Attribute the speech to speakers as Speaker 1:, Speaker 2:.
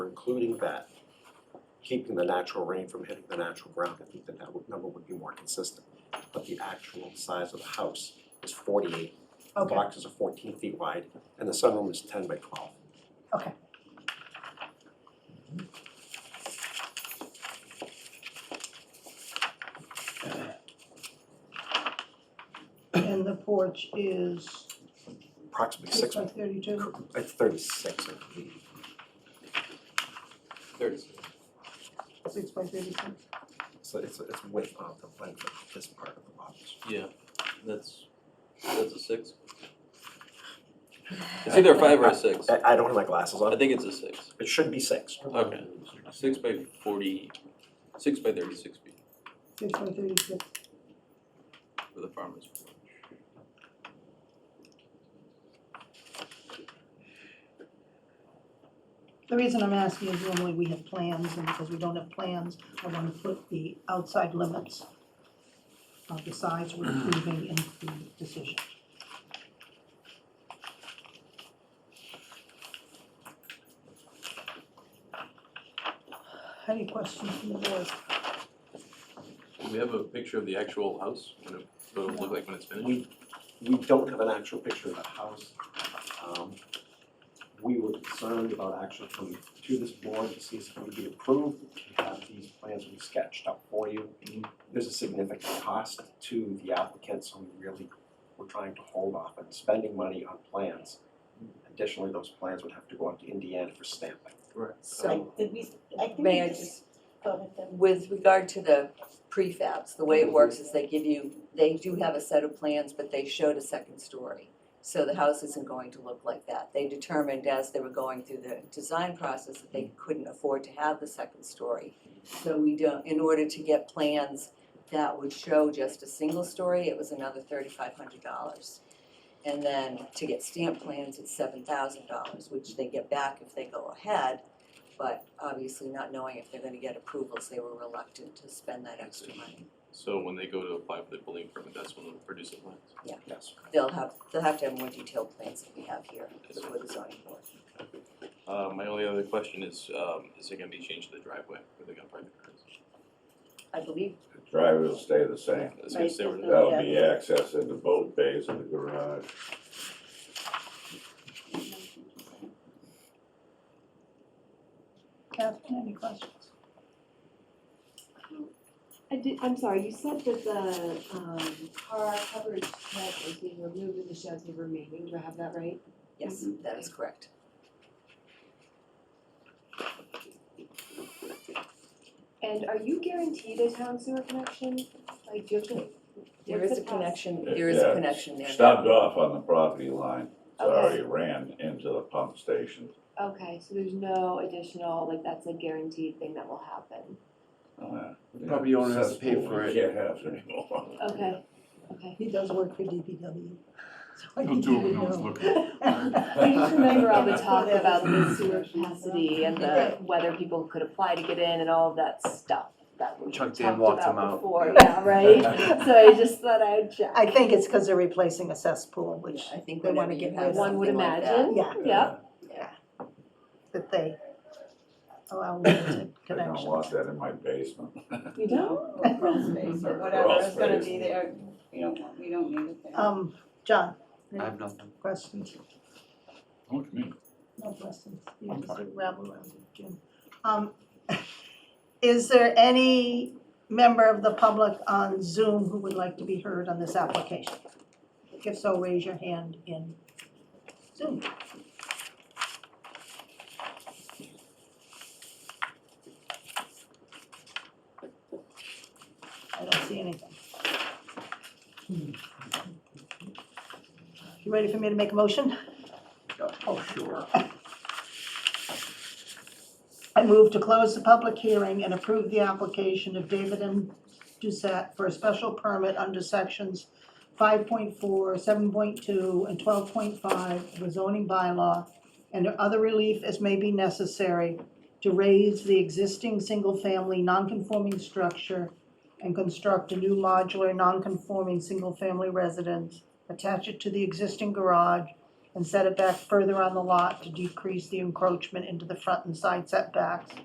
Speaker 1: including that, keeping the natural rain from hitting the natural ground, I think that that would, number would be more consistent. But the actual size of the house is forty-eight, the
Speaker 2: Okay,
Speaker 1: boxes are fourteen feet wide, and the sunroom is ten by twelve.
Speaker 2: okay. And the porch is
Speaker 1: Approximately
Speaker 2: six
Speaker 1: six,
Speaker 2: by thirty-two?
Speaker 1: it's thirty-six, I believe.
Speaker 3: Thirty-six.
Speaker 2: Six by thirty-two?
Speaker 1: So it's, it's width of the length of this part of the box.
Speaker 3: Yeah, that's, that's a six. It's either a five or a six.
Speaker 1: I, I don't have my glasses
Speaker 3: I
Speaker 1: on,
Speaker 3: think it's a six.
Speaker 1: it should be six.
Speaker 3: Okay. Six by forty, six by thirty-six feet
Speaker 2: Six by thirty-two.
Speaker 3: for the farmer's porch.
Speaker 2: The reason I'm asking is normally we have plans, and because we don't have plans, I wanna put the outside limits of the size we're approving in the decision. Any questions from the board?
Speaker 3: Do we have a picture of the actual house, what it, what it'll look like when it's finished?
Speaker 1: We, we don't have an actual picture of the house. Um, We were concerned about actually coming to this board to see if it would be approved. We have these plans we sketched up for you. There's a significant cost to the applicant, so we really, we're trying to hold off on spending money on plans. Additionally, those plans would have to go out to Indiana for stamping.
Speaker 4: So,
Speaker 5: Did we, I think we
Speaker 4: Um, may I
Speaker 5: just
Speaker 4: just,
Speaker 5: go with them.
Speaker 4: with regard to the prefabs, the way it works is they give you, they do have a set of plans, but they showed a second story. So the house isn't going to look like that. They determined as they were going through the design process that they couldn't afford to have the second story. So we don't, in order to get plans that would show just a single story, it was another thirty-five hundred dollars. And then to get stamp plans, it's seven thousand dollars, which they get back if they go ahead. But obviously not knowing if they're gonna get approvals, they were reluctant to spend that extra money.
Speaker 3: So when they go to apply for the building permit, that's when they'll produce the plans.
Speaker 1: Yes.
Speaker 4: They'll have, they'll have to have more detailed plans that we have here before the zoning board.
Speaker 3: Uh, my only other question is, um, is it gonna be changed to the driveway where they're gonna park the cars?
Speaker 4: I believe
Speaker 6: The driveway will stay the same.
Speaker 3: It's gonna stay where it is.
Speaker 6: That'll be access into both bays of the garage.
Speaker 2: Catherine, any questions?
Speaker 7: I did, I'm sorry, you said that the, um, car coverage shed is being removed and the sheds are remaining, do I have that right?
Speaker 4: Yes, that is correct.
Speaker 7: And are you guaranteed a town sewer connection? Like, do you have to?
Speaker 4: There
Speaker 7: what's
Speaker 4: is a
Speaker 7: the process?
Speaker 4: connection, there is a
Speaker 6: Yeah.
Speaker 4: connection there now.
Speaker 6: Stopped off on the property line, so I
Speaker 7: Okay.
Speaker 6: already ran into the pump station.
Speaker 7: Okay, so there's no additional, like, that's a guaranteed thing that will happen,
Speaker 6: The
Speaker 8: property owner has to pay for it.
Speaker 6: Can't have it Uh, anymore.
Speaker 7: okay, okay.
Speaker 2: He does work for DPW. so I
Speaker 9: He'll
Speaker 2: can
Speaker 9: do it
Speaker 2: give you
Speaker 9: when no one's
Speaker 2: no.
Speaker 9: looking.
Speaker 7: I just remember all the talk about the sewer capacity and the, whether people could apply to get in and all of that stuff that we
Speaker 8: Chuck
Speaker 7: talked
Speaker 8: Dan locked them
Speaker 7: about
Speaker 8: out.
Speaker 7: before, yeah, right? So I just thought I would check.
Speaker 2: I think it's because they're replacing a cesspool, which,
Speaker 4: Yeah, I think
Speaker 2: they wanna
Speaker 4: whenever you
Speaker 2: get
Speaker 4: have
Speaker 2: rid of.
Speaker 7: One would
Speaker 4: something like that.
Speaker 7: imagine.
Speaker 2: yeah,
Speaker 7: Yep.
Speaker 2: that they allow limited
Speaker 6: I don't want
Speaker 2: connections.
Speaker 6: that in my basement.
Speaker 7: You don't?
Speaker 5: Or crawl space or whatever
Speaker 6: Crawl
Speaker 5: is gonna
Speaker 6: space.
Speaker 5: be there, we don't, want- we don't need it there.
Speaker 2: Um, John,
Speaker 8: I have nothing.
Speaker 2: questions?
Speaker 9: Oh, Look at me.
Speaker 2: No questions, you
Speaker 9: I'm
Speaker 2: just
Speaker 9: fine.
Speaker 2: rabble around, Jim. Um, is there any member of the public on Zoom who would like to be heard on this application? If so, raise your hand in Zoom. I don't see anything. You ready for me to make a motion?
Speaker 9: Oh, sure.
Speaker 2: I move to close the public hearing and approve the application of David M. Doucette for a special permit under sections 5.4, 7.2, and 12.5 of the zoning bylaw, and other relief as may be necessary to raise the existing single-family nonconforming structure and construct a new modular nonconforming single-family residence, attach it to the existing garage, and set it back further on the lot to decrease the encroachment into the front and side setbacks.